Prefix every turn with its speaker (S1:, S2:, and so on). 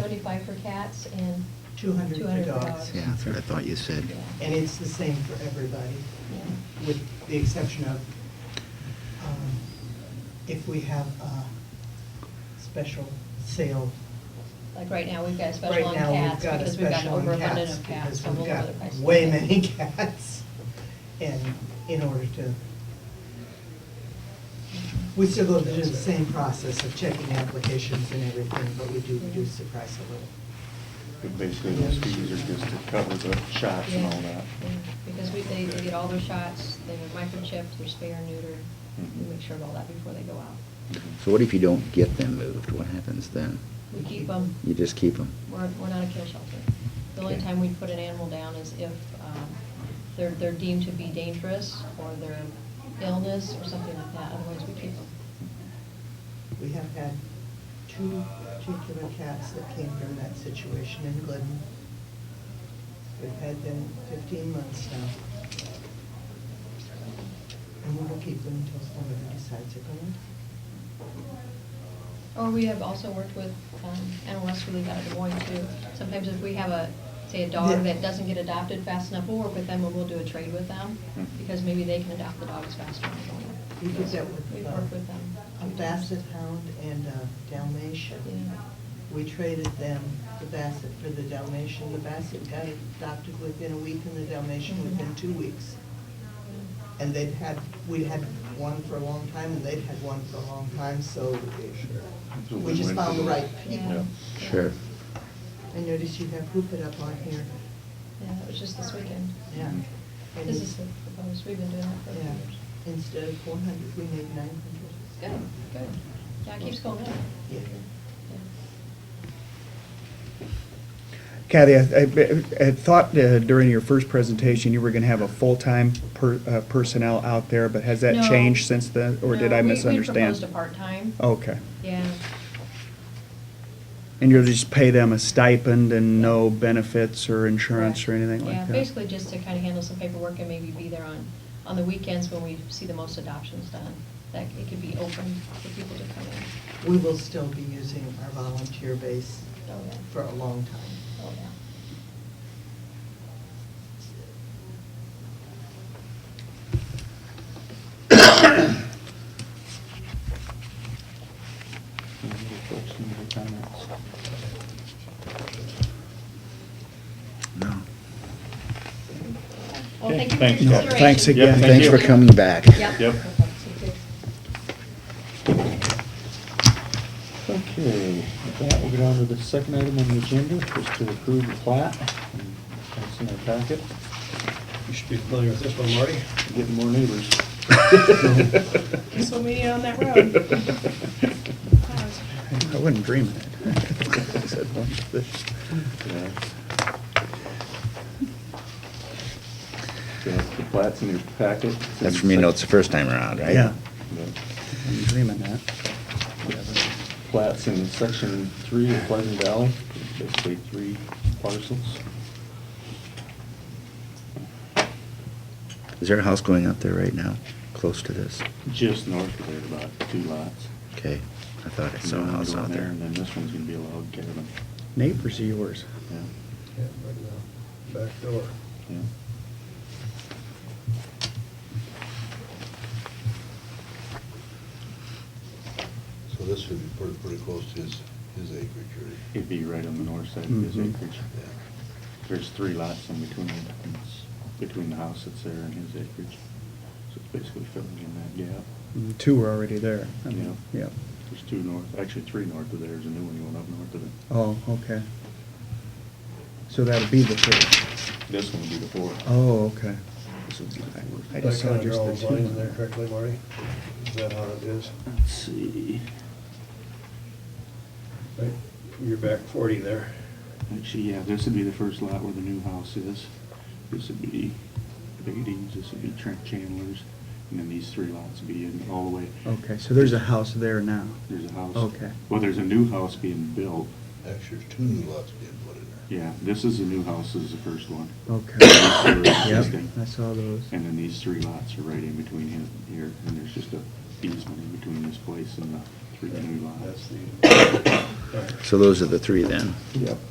S1: 75 for cats and
S2: 200 for
S1: 200 for dogs.
S2: dogs.
S3: Yeah, that's what I thought you said.
S1: Yeah.
S2: And it's the same for everybody,
S1: Yeah.
S2: with the exception of um, if we have a special sale.
S1: Like right now, we've got a
S2: Right
S1: special on
S2: now, we've
S1: cats
S2: got a
S1: because we've got
S2: special on
S1: overabundance of cats,
S2: because
S1: so
S2: we've
S1: we'll
S2: got
S1: lower the price.
S2: Way many cats, and in order to, we still go through the same process of checking applications and everything, but we do reduce the price a little.
S4: But Basically, those fees are just to cover the shots and all that.
S1: Yeah, Because we, they, they get all their shots, they are microchipped, they're spay or neutered, we
S4: Mhm.
S1: make sure of all that before they go out.
S4: Mhm.
S3: So what if you don't get them moved? What happens then?
S1: We keep them,
S3: You just keep them?
S1: we're, we're not a kill shelter. The only
S3: Okay.
S1: time we put an animal down is if, um, they're, they're deemed to be dangerous or their illness or something like that, otherwise we keep them.
S2: We have had two particular cats that came from that situation in Glidden. We've had them fifteen months now. And we will keep them until somebody decides they're going to.
S1: Or we have also worked with um, Animal Rescue League out of Des Moines too. Sometimes if we have a, say a dog
S2: Yeah.
S1: that doesn't get adopted fast enough, we'll work with them and we'll do a trade with them
S4: Mhm.
S1: because maybe they can adopt the dogs faster. than we
S2: We
S1: can.
S2: did that with.
S1: We've
S2: uh,
S1: worked with them.
S2: A basset hound and a
S1: Yeah.
S2: Dalmatian. We traded them, the basset for the Dalmatian. The basset got adopted within a week and the Dalmatian within two weeks. And they'd had, we'd had one for a long time, and they'd had one for a long time, so
S4: It's a
S2: we just
S4: win-win
S2: found
S4: for
S2: the right
S4: both.
S2: people.
S1: Yeah.
S3: Sure.
S2: I noticed you have hoop it up on here.
S1: Yeah, that was just this weekend.
S2: Yeah. And
S1: This is the proposed, we've been doing that for a few
S2: Yeah.
S1: years.
S2: Instead of four hundred, we made nine hundred.
S1: Good, good. Yeah, it keeps going up.
S2: Yeah.
S1: Yeah.
S5: Kathy, I, I, I thought uh, during your first presentation, you were gonna have a full-time per, uh, personnel out there, but has that
S1: No.
S5: changed since then, or did
S1: No,
S5: I
S1: we- We
S5: misunderstand? Oh.
S1: proposed a part-time.
S5: Okay,
S1: Yeah.
S5: and you'll just pay them a stipend and no benefits or insurance or
S1: Correct.
S5: anything like that?
S1: Yeah, basically just to kind of handle some paperwork and maybe be there on, on the weekends when we see the most adoptions done. That it could be open for people to come in.
S2: We will still be using our volunteer base
S1: Oh, yeah.
S2: for a long time.
S1: Oh, yeah.
S4: Any other folks, any other comments?
S3: No.
S1: Well,
S4: Okay,
S1: thank you for your consideration.
S3: No,
S4: thanks, Kathy.
S3: thanks
S4: Yeah,
S3: again.
S4: thank
S3: Thanks
S4: you.
S3: for coming back.
S1: Yeah.
S4: Yep.
S1: Okay, thank you.
S4: Okay, with that, we'll get on to the second item on the agenda, just to approve the plat. And That's in our packet.
S6: You should be familiar with this one, Marty.
S4: Getting more neighbors.
S7: This will be on that road.
S3: I wouldn't dream of that. Said one of the-
S4: Yeah. So that's the plat's in your packet.
S3: That's from your notes the first time around, right?
S5: Yeah,
S4: Yeah.
S5: I'm dreaming that.
S4: plats in section three of Pleasant Valley, basically three parcels.
S3: Is there a house going up there right now, close to this?
S4: Just north of there, about two lots.
S3: Okay, I thought I saw a
S4: And then
S3: house
S4: one
S3: out there.
S4: And then this one's gonna be a log cabin.
S5: Neighbors of yours.
S4: Yeah,
S6: Yeah, right now, back door.
S4: yeah.
S8: So this would be pretty, pretty close to his, his acreage, right?
S4: It'd be right on the north side of his
S5: Mhm.
S4: acreage.
S8: Yeah.
S4: There's three lots in between, it's between the house that's there and his acreage. So it's basically filling in that gap.
S5: Mm, Two were already there. I mean,
S4: Yeah.
S5: Yeah,
S4: There's two north, actually three north of there, there's a new one going up north of it.
S5: oh, okay. So that'll be the third.
S4: This one would be the fourth.
S5: Oh, okay.
S4: This would be the fourth.
S5: I just saw just the
S6: Did I kind of
S5: two
S6: draw a line
S5: on
S6: in there
S5: that.
S6: correctly, Marty? Is that how it is?
S4: Let's see.
S6: Right, You're back 40 there.
S4: Actually, yeah, this would be the first lot where the new house is. This would be Beatty's, this would be Trent Chandler's, and then these three lots would be in all the way.
S5: Okay, so there's a house there now.
S4: There's a house.
S5: Okay.
S4: Well, there's a new house being built.
S8: Actually, there's two new lots being put in there.
S4: Yeah, this is the new house, this is the first one.
S5: Oh. Okay.
S4: These two are
S5: Yep,
S4: existing.
S5: I saw those.
S4: And then these three lots are right in between him here, and there's just a easement in between this place and the three new lots.
S6: That's the. all right.
S3: So those are the three then?
S4: Yep.